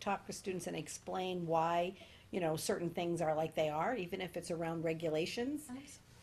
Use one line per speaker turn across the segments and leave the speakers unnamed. talk with students and explain why, you know, certain things are like they are, even if it's around regulations.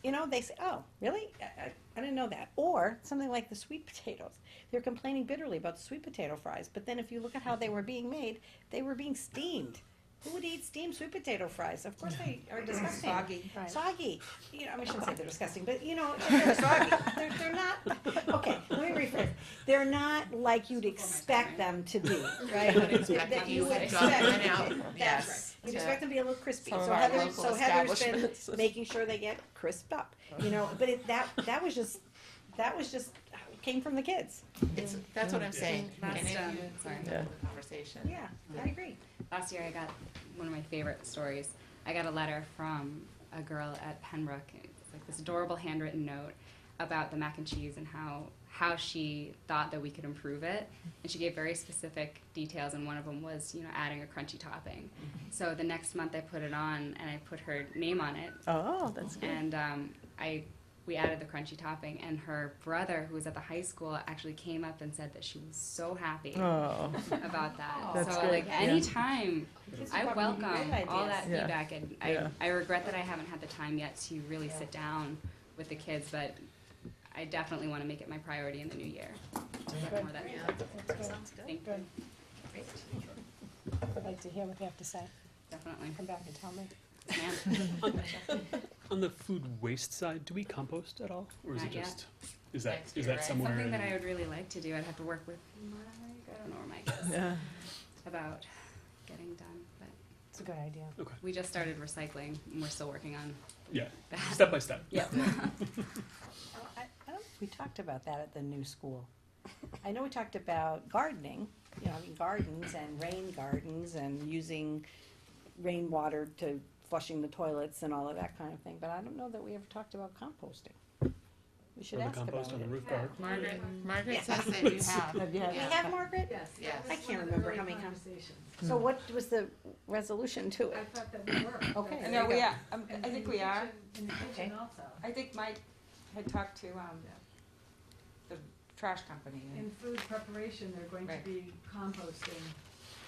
You know, they say, oh, really? I, I, I didn't know that. Or something like the sweet potatoes. They're complaining bitterly about the sweet potato fries, but then if you look at how they were being made, they were being steamed. Who would eat steamed sweet potato fries? Of course they are disgusting.
Soggy.
Right.
Soggy. You know, I mean, I shouldn't say they're disgusting, but you know, they're soggy. They're, they're not, okay, let me rephrase. They're not like you'd expect them to be, right?
would expect
That
them.
you would
You would
expect.
go in and out.
That's right.
Yes.
You'd expect them to be a little crispy.
Some of
So
our
Heather,
local
so Heather's been
establishments.
making sure they get crisped up, you know, but it, that, that was just, that was just, uh, came from the kids.
It's, that's what I'm saying.
Last,
And if
um,
you-
sorry.
Yeah. Conversation.
Yeah, I agree.
Last year, I got one of my favorite stories. I got a letter from a girl at Pembroke, it's like this adorable handwritten note about the mac and cheese and how how she thought that we could improve it. And she gave very specific details, and one of them was, you know, adding a crunchy topping. So the next month, I put it on and I put her name on it,
Oh, that's good.
and um, I we added the crunchy topping. And her brother, who was at the high school, actually came up and said that she was so happy
Oh,
about that.
That's
so
good,
like
yeah.
anytime
Kids
I
are probably
welcome
great
all that
ideas.
Yeah.
feedback and I,
Yeah.
I regret that I haven't had the time yet to really sit down with the kids, but I definitely want to make it my priority in the new year. To get more of that feedback.
Sounds good.
Thank you.
Good. I'd like to hear what they have to say.
Definitely.
Come back and tell me.
Yes, ma'am.
On the food waste side, do we compost at all, or is
Not
it
yet.
just is that
Next
is
year,
that
right?
somewhere?
Something that
in-
I would really like to do, I'd have to work with Mike, I don't know where Mike is,
Yeah,
about getting done, but
it's a good idea.
Okay.
we just started recycling and we're still working on
Yeah.
that.
Step by step.
Yep.
I, I don't think we talked about that at the new school. I know we talked about gardening, you know, I mean, gardens and rain gardens and using rainwater to flushing the toilets and all of that kind of thing, but I don't know that we ever talked about composting. We should
Or the
ask
compost
about
on
it.
the roof garden.
Margaret, Margaret
Yes.
says that you have.
Have you had-
We have Margaret?
Yes. that
Yes.
was
I can't
one of the
remember
early
how many com-
conversations.
So what was the resolution to
I
it?
thought that we were.
Okay.
And
No,
There you
we
go.
are, um,
in
I think
the
we are.
kitchen- In the kitchen also,
I think Mike had talked to, um, the trash company. and-
in food preparation, they're going to
Right.
be composting,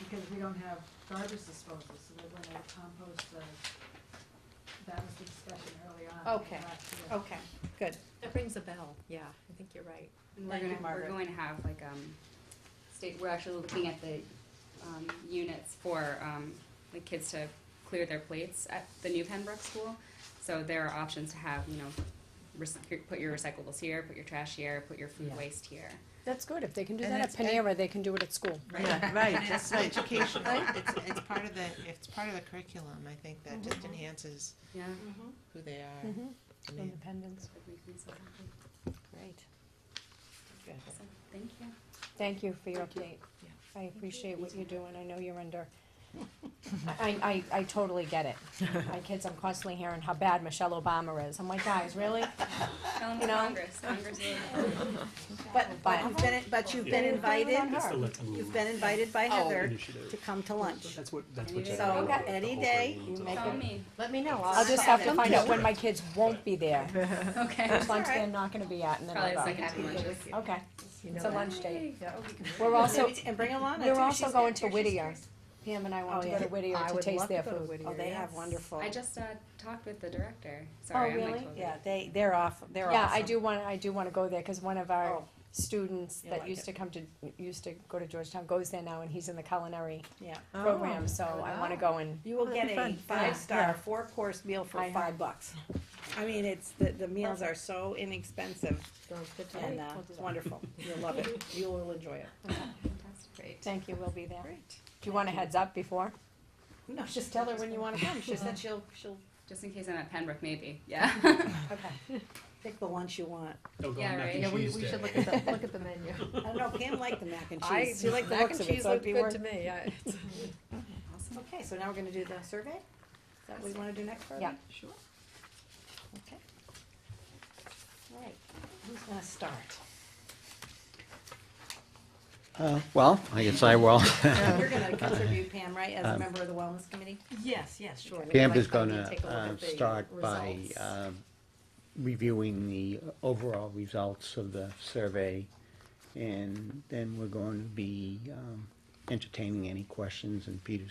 because we don't have garbage disposal, so they're gonna compost the, that was the discussion early on. in the
Okay.
last year.
Okay, good.
That rings a bell, yeah, I think you're right.
And we're
Thank you,
gonna, we're
Margaret.
going to have like, um, state, we're actually looking at the, um, units for, um, the kids to clear their plates at the new Pembroke school. So there are options to have, you know, rec- put your recyclables here, put your trash here, put your food
Yeah.
waste here.
That's good, if they can do
And
that at
that's- and-
Panera, they can do it at school.
Yeah, right,
And
that's
it's
right.
educational, it's, it's part of the, it's part of the curriculum, I think, that just enhances
Yeah.
who they are.
Mhm.
I mean,
Independence.
That would make me so happy.
Great. Good.
So, Thank you.
Thank you for your update.
Yeah.
I appreciate what you're doing, I know you're under, I, I, I totally get it. My kids, I'm constantly hearing how bad Michelle Obama is, I'm like, guys, really?
Tell them
You know-
Congress, Congress. will-
But, but you've been, but you've been
Yeah.
invited,
It's the let's move
you've been invited
Oh.
by Heather to
initiative.
come to lunch.
That's what that's what.
So,
Okay.
generated the
any
whole
day
thing.
you
So-
make
Tell me.
Let me know.
I'll just have to
sign
find
up.
out when my kids won't be there,
Okay.
which lunch
Alright.
they're not gonna be at, and then
Probably
I'll
the
go.
second happy lunches.
Okay, it's a lunch date.
We're
We're
also,
also-
and bring Alana
We're
too.
also
She's-
going to Whittier, Pam and I
Oh,
want to
yeah.
go to Whittier
I
to
would
taste
love
their
to go to
food.
Whittier.
Oh, they have
yes.
wonderful.
I just, uh, talked with the director, sorry, I might
Oh, really?
close it.
Yeah, they, they're off, they're awesome.
Yeah, I do want, I do want to go there, cause one of our
Oh,
students
You'll
that
like
used
it.
to come to, used to go to Georgetown goes there now and he's in the culinary
yeah.
Oh,
program, so I wanna go and,
You will
Oh,
get
that'd be
a
fun.
five-star, four-course meal for
I heard.
five bucks. I mean, it's, the, the meals are so inexpensive and, uh, it's wonderful. You'll love it. You will enjoy it.
Fantastic. Great.
thank you, we'll be there.
Great.
Do you want a heads up before?
No, just tell her when you wanna come. She said she'll, she'll
Just in case I'm at Pembroke, maybe, yeah.
Okay.
pick the lunch you want.
Oh, go
Yeah,
on mac
right.
and
Yeah,
We,
cheese
we should
day.
look at the, look at the menu.
I don't know, Pam liked the mac and
I-
cheese. She liked the
mac and
looks of it,
cheese
so it'd
looked
be
good
worth
to me, yeah. it's-
Awesome.
Okay, so now we're gonna do the survey? Is that what we wanna do next, Barbie?
Yeah.
Sure.
Okay. All right, who's gonna start?
Uh, Well, I guess I will.
You're gonna contribute Pam, right, as a member of the wellness committee?
Yes, yes, sure. We'd like
Camp Um, is
to come
going
and take a look
to
at the
uh, start by
results.
um, reviewing the overall results of the survey, and then we're going to be um, entertaining any questions, and Peter's